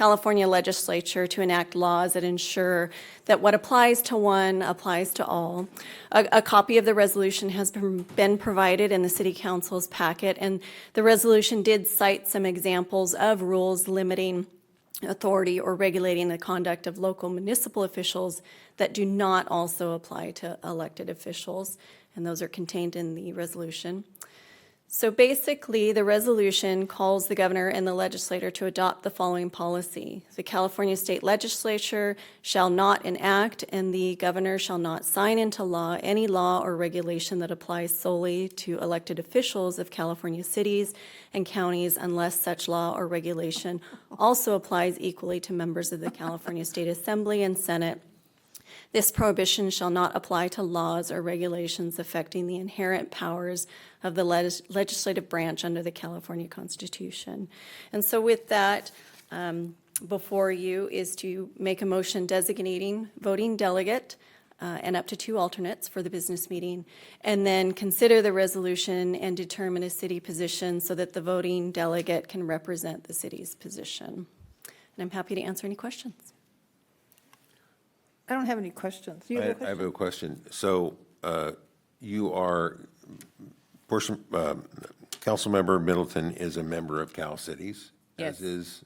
California legislature to enact laws that ensure that what applies to one applies to all. A, a copy of the resolution has been been provided in the city council's packet, and the resolution did cite some examples of rules limiting authority or regulating the conduct of local municipal officials that do not also apply to elected officials, and those are contained in the resolution. So basically, the resolution calls the governor and the legislator to adopt the following policy. The California State Legislature shall not enact, and the governor shall not sign into law any law or regulation that applies solely to elected officials of California cities and counties unless such law or regulation also applies equally to members of the California State Assembly and Senate this prohibition shall not apply to laws or regulations affecting the inherent powers of the legis- legislative branch under the California Constitution. And so with that, um, before you is to make a motion designating voting delegate uh, and up to two alternates for the business meeting, and then consider the resolution and determine a city position so that the voting delegate can represent the city's position. And I'm happy to answer any questions. I don't have any questions. You have a I I question? have a question. So uh, you are, portion, um, Councilmember Middleton is a member of Cal Cities. Yes. As is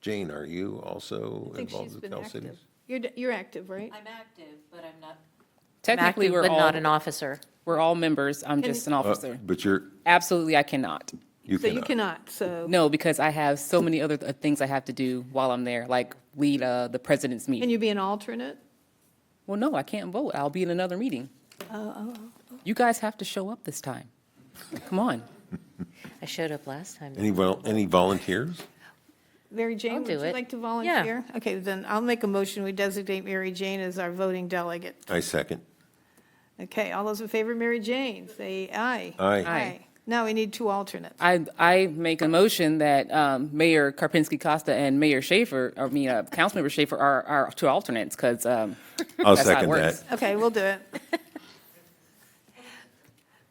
Jane, are you also I think she's involved with been Cal active. Cities? You're, d- you're active, right? I'm active, but I'm not. Technically, active, we're But all, not an officer. we're all members. I'm just an Uh, officer. But you're, Absolutely, I cannot. you uh, So you uh, cannot. cannot, so, No, because I have so many other th- things I have to do while I'm there, like lead uh, the president's can meeting. you be an alternate? Well, no, I can't vote. I'll be in another meeting. Oh, You guys have to show up this time. Come on. I showed up last time. Any vol, any volunteers? Mary Jane, would do you it. like to Yeah. volunteer? Okay, then I'll make a motion, we designate Mary Jane as our voting delegate. I second. Okay, all those in favor, of Mary Jane, say aye. Aye. Aye. Now we need two alternates. I, I make a motion that um, Mayor Karpinski Costa and Mayor Schaefer, I mean, uh, Councilmember Schaefer are, are two alternates, because I'll that's how it second that. works. Okay, we'll do it.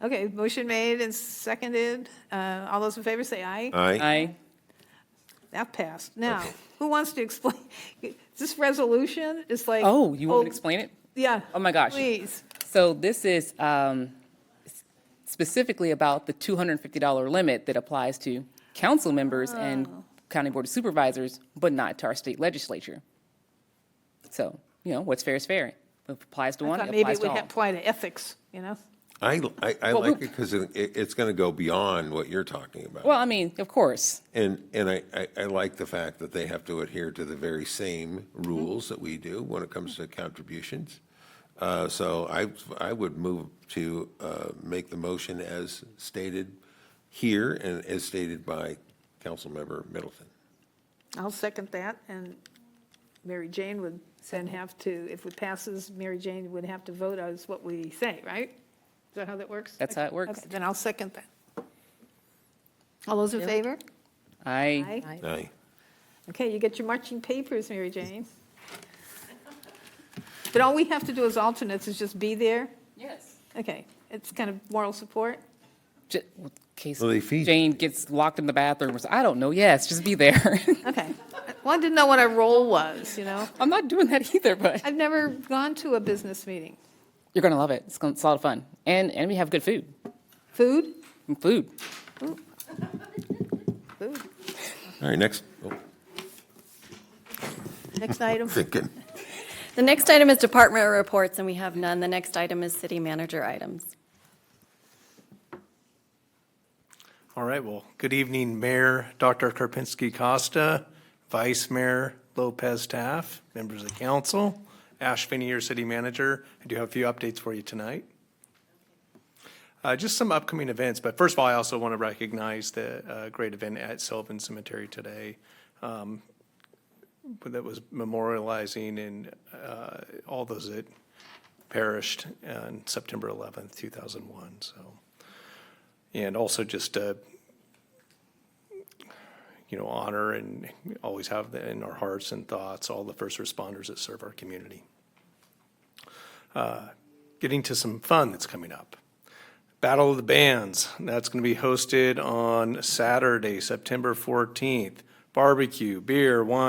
Okay, motion made and seconded. Uh, All those in favor, say aye. Aye. I, That passed. Now, who wants to explain? This resolution is like. oh, you want me to explain it? Yeah. Oh, my gosh. Please. So this is um, s- specifically about the $250 limit that applies to council members and Oh. county board of supervisors, but not to our state legislature. So, you know, what's fair is fair. If it applies to I one, thought it maybe applies it would to ha- all. apply to ethics, you know? I, I, I Well, we- like it because it, it's going to go beyond what you're talking about. Well, I mean, of course, And, and I, I, I like the fact that they have to adhere to the very same rules that we do when it comes to contributions. Uh, so I, I would move to, uh, make the motion as stated here and as stated by Councilmember Middleton. I'll second that, and Mary Jane would then have to, if it passes, Mary Jane would have to vote as what we say, right? Is that how that works? That's how it works. Okay, Then I'll second that. All those in favor? I, Aye. Aye. Okay, you get your marching papers, Mary Jane. But all we have to do as alternates is just be there? yes. Okay, it's kind of moral support? Ju- in Case Well, they feed- Jane gets locked in the bathroom, or so- I don't know, yes, just be there. Okay. Well, I didn't know what our role was, you know? I'm not doing that either, but I've never gone to a business meeting. you're gonna love it. It's gonna, it's a lot of fun. And, and we have good food, Food? food. Food. All right, next, oh, Next item. thinking. The next item is department reports, and we have none. The next item is city manager items. All right, well, good evening, Mayor Dr. Karpinski Costa, Vice Mayor Lopez Taff, members of council, Ash Finney, your city manager. I do have a few updates for you tonight. Uh, just some upcoming events, but first of all, I also want to recognize the, uh, great event at Sylvan Cemetery today. um, That was memorializing and, uh, all those that perished on September eleventh, two thousand one, so. And also just, uh, you know, honor and always have in our hearts and thoughts all the first responders that serve our community. Uh, Getting to some fun that's coming up. Battle of the Bands, that's going to be hosted on Saturday, September 14th. Barbecue, beer, wine.